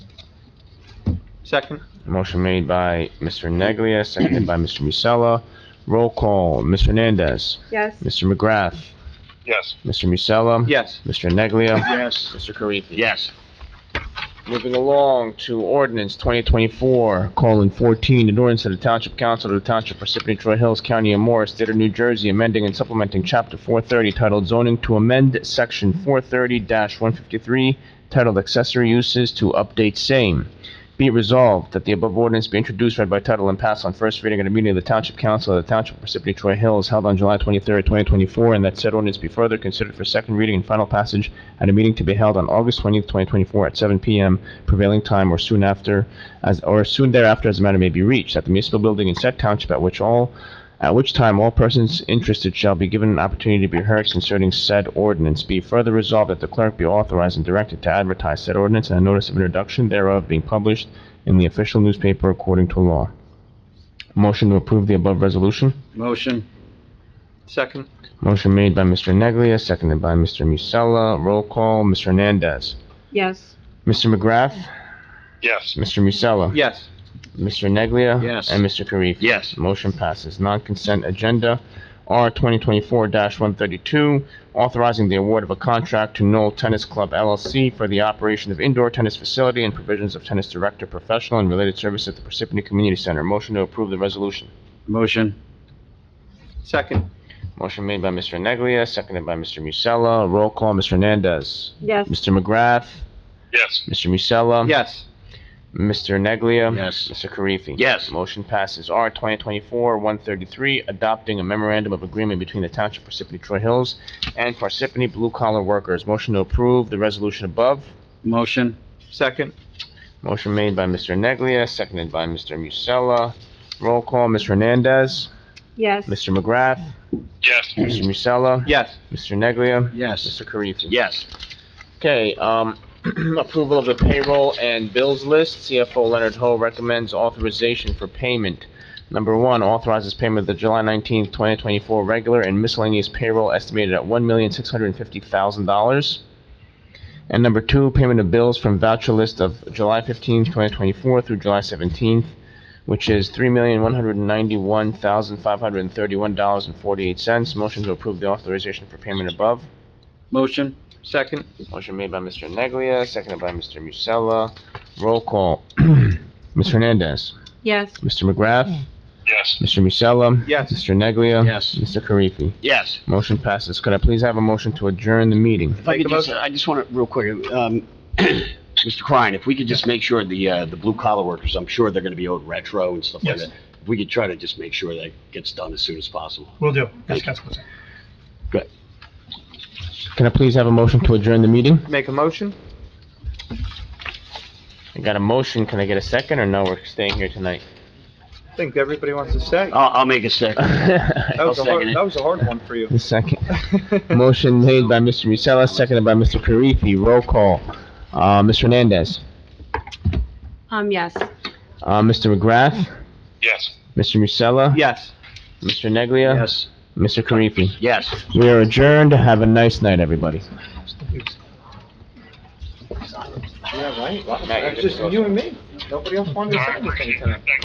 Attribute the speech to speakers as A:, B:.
A: Second.
B: Motion made by Mr. Neglia, seconded by Mr. Musella. Roll call, Ms. Hernandez.
C: yes,
B: Mr. McGrath.
D: Yes.
B: Mr. Musella.
A: Yes.
B: Mr. Neglia.
D: Yes.
B: Mr. Karifi.
D: Yes.
B: Moving along to ordinance 2024, colon 14, an ordinance of the Township Council of the Township Parsippany Troy Hills, County of Morris, State of New Jersey, amending and supplementing Chapter 430 titled Zoning to amend Section 430-153 titled Accessory Uses to update same. Be it resolved that the above ordinance be introduced, read by title, and passed on first reading at a meeting of the Township Council of the Township of Parsippany Troy Hills held on July 23, 2024, and that said ordinance be further considered for second reading and final passage at a meeting to be held on August 20, 2024, at 7 p.m. prevailing time or soon after, as or soon thereafter as the matter may be reached, at the municipal building in said township at which all at which time all persons interested shall be given an opportunity to be heard concerning said ordinance. Be further resolved that the clerk be authorized and directed to advertise said ordinance and a notice of introduction thereof being published in the official newspaper according to law. Motion to approve the above resolution?
D: Motion.
A: Second.
B: Motion made by Mr. Neglia, seconded by Mr. Musella. Roll call, Mr. Hernandez.
C: yes,
B: Mr. McGrath?
D: Yes.
B: Mr. Musella?
A: Yes.
B: Mr. Neglia?
D: Yes.
B: And Mr. Karifi?
D: Yes.
B: Motion passes. Non-consent agenda, R 2024-132, authorizing the award of a contract to Knoll Tennis Club LLC for the operation of indoor tennis facility and provisions of tennis director, professional, and related service at the Parsippany Community Center. Motion to approve the resolution.
D: Motion.
A: Second.
B: Motion made by Mr. Neglia, seconded by Mr. Musella. Roll call, Mr. Hernandez.
C: yes,
B: Mr. McGrath.
D: Yes.
B: Mr. Musella.
A: Yes.
B: Mr. Neglia?
D: Yes.
B: Mr. Karifi?
D: Yes.
B: Motion passes. R 2024-133, adopting a memorandum of agreement between the Township of Parsippany Troy Hills and Parsippany Blue Collar Workers. Motion to approve the resolution above.
D: Motion.
A: Second.
B: Motion made by Mr. Neglia, seconded by Mr. Musella. Roll call, Ms. Hernandez?
C: yes,
B: Mr. McGrath?
D: Yes.
B: Mr. Musella?
A: Yes.
B: Mr. Neglia?
D: Yes.
B: Mr. Karifi?
D: Yes.
B: Okay, um, approval of the payroll and bills list. CFO Leonard Ho recommends authorization for payment. Number one, authorizes payment of the July nineteenth, twenty twenty-four regular and miscellaneous payroll estimated at one million, six hundred and fifty thousand dollars. And number two, payment of bills from voucher list of July fifteenth, twenty twenty-four through July seventeenth, which is three million, one hundred and ninety-one thousand, five hundred and thirty-one dollars and forty-eight cents. Motion to approve the authorization for payment above.
D: Motion.
A: Second.
B: Motion made by Mr. Neglia, seconded by Mr. Musella. Roll call. Ms. Hernandez.
C: yes,
B: Mr. McGrath.
D: Yes.
B: Mr. Musella.
A: Yes.
B: Mr. Neglia.
D: Yes.
B: Mr. Karifi.
D: Yes.
B: Motion passes. Could I please have a motion to adjourn the meeting?
D: If I
A: Make
D: could
A: the
D: just, uh,
A: motion.
D: I just want to, real quick, um, Mr. Klein, if we could just make sure the, uh, the blue collar workers, I'm sure they're going to be owed retro and stuff like
E: Yes.
D: that. If we could try to just make sure that gets done as soon as possible.
E: Will do. Yes, Councilman.
B: Can I please have a motion to adjourn the meeting?
A: Make a motion?
B: I got a motion. Can I get a second or no? We're staying here tonight.
A: I think everybody wants to say.
D: I'll, I'll make a second.
A: That
B: The
A: was a hard,
D: second it.
A: that was a hard one for you.
B: second. Motion made by Mr. Musella, seconded by Mr. Karifi. Roll call. Uh, Ms. Hernandez.
C: um, yes.
B: Uh, Mr. McGrath.
D: Yes.
B: Mr. Musella.
A: Yes.
B: Mr. Neglia.
D: Yes.
B: Mr. Karifi.
D: Yes.
B: We are adjourned. Have a nice night, everybody.
A: Yeah, right?
B: Matt, you
A: It's just
B: didn't go.
A: you and me. Nobody else wanted to say anything tonight.